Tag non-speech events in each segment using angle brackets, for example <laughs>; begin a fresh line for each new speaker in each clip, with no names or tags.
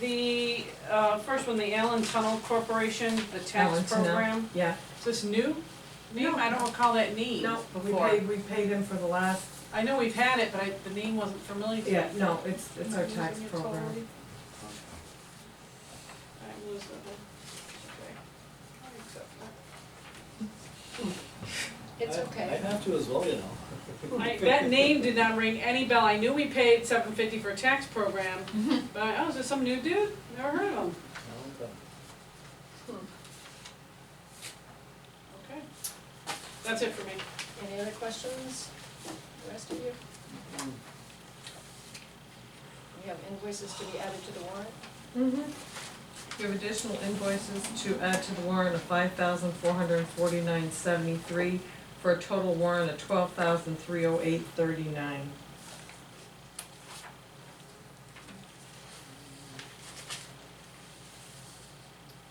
the, uh, first one, the Allen Tunnel Corporation, the
Allen
tax
Tunnel.
program,
Yeah,
is this new? Name,
No.
I don't recall that name
no, but we
before.
paid, we paid him for the last,
I know we've had it, but I, the name wasn't familiar to me.
yeah, no, it's, it's our
Am I
tax
losing it
program.
totally? I'm losing it.
It's
I
okay.
have to as well, you
Okay.
know.
I, that name did not ring any bell, I knew we paid seven fifty for a tax program,
Mm-hmm.
but, I- oh, is this some new dude? Never heard of him, okay. That's it for me.
Any other questions, the rest of you? We have invoices to be added to the warrant.
Mm-hmm. You have additional invoices to add to the warrant of five thousand four hundred and forty-nine seventy-three for a total warrant of twelve thousand three oh eight thirty-nine.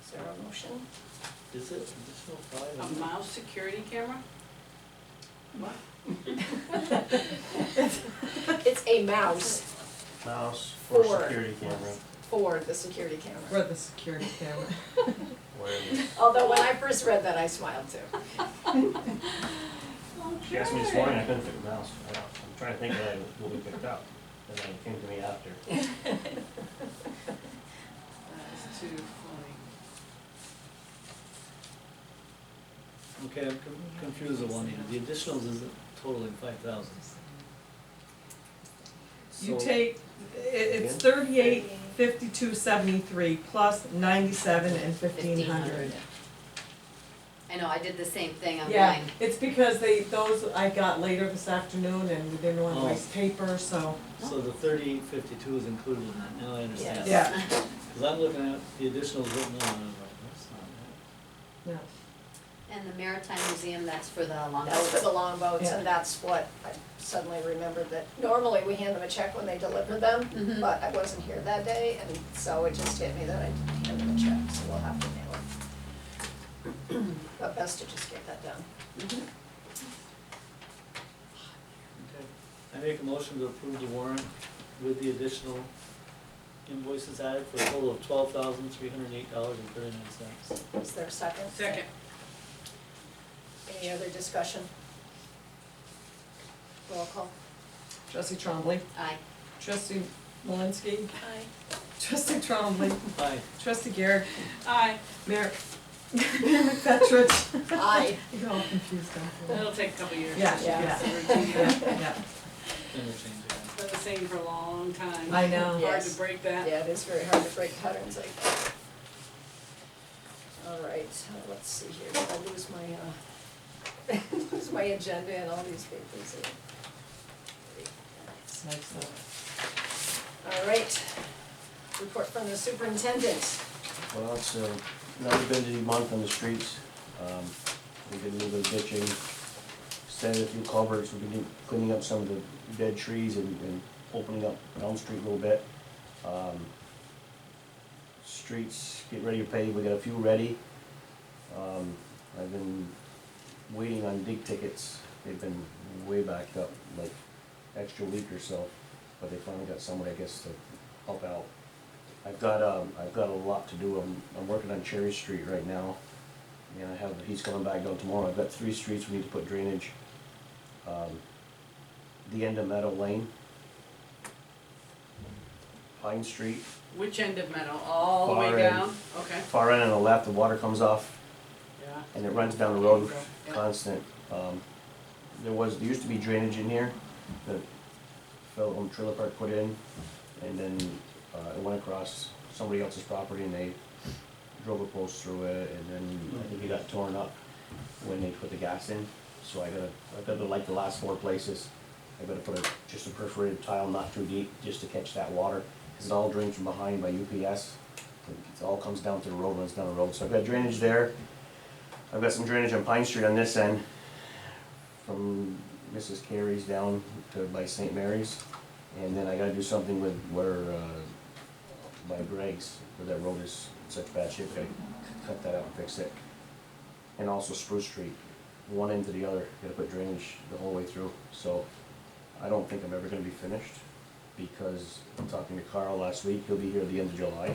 Is there a motion?
Is it additional
A
five?
mouse security camera? What?
<laughs> It's a mouse
Mouse for
Four.
security camera.
for the security camera.
For the security camera.
Where
Although when I first read that, I smiled
<laughs>
too.
she asked me this morning, I couldn't figure mouse out. I'm trying to think that it will be picked up, and then it came to me after.
That's too funny.
Okay, I'm con- confused with one here. The additionals is totaling five thousand.
You take, i- it's thirty-eight fifty-two seventy-three plus ninety-seven and fifteen hundred.
I know, I did the same thing online.
Yeah, it's because they, those I got later this afternoon and we didn't want to
Oh.
waste paper, so.
So the thirty-eight fifty-two is included in that, now I understand.
Yes.
Yeah.
Cause I'm looking at the additionals written on, and I'm like, that's not
No.
And the Maritime Museum, that's for the long.
That's for the longboats,
Yeah.
and that's what I suddenly remembered that normally we hand them a check when they deliver them,
Mhm.
Mm-hmm.
but I wasn't here that day, and so it just hit me that I didn't hand them a check, so we'll have to mail it. <clears throat> But best to just get that done.
it. Okay. I make a motion to approve the warrant with the additional invoices added for a total of twelve thousand three hundred and eight dollars and thirty-nine cents.
Is there a second?
Second.
Any other discussion? Roll call.
Trustee Trombley.
Aye.
Trustee Malinsky.
Aye.
Trustee Trombley.
Aye.
Trustee Garrett.
Aye,
Mayor, Mayor <laughs> McFetrich.
Aye.
You're all confused, don't you?
it'll take a couple years.
Yeah,
Yeah.
yeah,
It's
yeah, yeah.
Interchange again.
Been the same for a long time.
I know.
Hard to
Yes.
break that.
<laughs> Yeah, it is very hard to break patterns like that. All right, uh, let's see here, I lose my, uh, <laughs> lose my agenda and all these papers here.
It's nice though.
All right, report from the superintendent.
Well, it's uh, another busy month on the streets. Um, We did a little bit of ditching, extended a few culverts, we've been cleaning up some of the dead trees and and opening up Elm Street a little bit. Um, Streets, get ready to pave, we got a few ready. Um, I've been waiting on dig tickets, they've been way backed up, like extra week or so, but they finally got somebody, I guess, to help out. I've got, um, I've got a lot to do, I'm, I'm working on Cherry Street right now, and I have, he's coming back down tomorrow, I've got three streets we need to put drainage. Um, The end of Meadow Lane, Pine Street,
Which end of metal, all the way
Far end.
down? Okay.
far end on the left, the water comes off,
Yeah.
and it runs down the road
Yeah.
constant. Um, there was, there used to be drainage in here that fellow on Trailer Park put in, and then, uh, it went across somebody else's property and they drove a post through it, and then I think it got torn up when they put the gas in. So I gotta, I gotta like the last four places, I gotta put a, just a perforated tile not too deep, just to catch that water, cause it all drains from behind by UPS. It all comes down to the road, runs down the road, so I've got drainage there, I've got some drainage on Pine Street on this end, from Mrs. Carey's down to by St. Mary's. And then I gotta do something with where, uh, by Greg's, where that road is in such bad shape, gotta cut that out and fix it. And also Spruce Street, one end to the other, gotta put drainage the whole way through, so I don't think I'm ever gonna be finished. Because I'm talking to Carl last week, he'll be here at the end of July.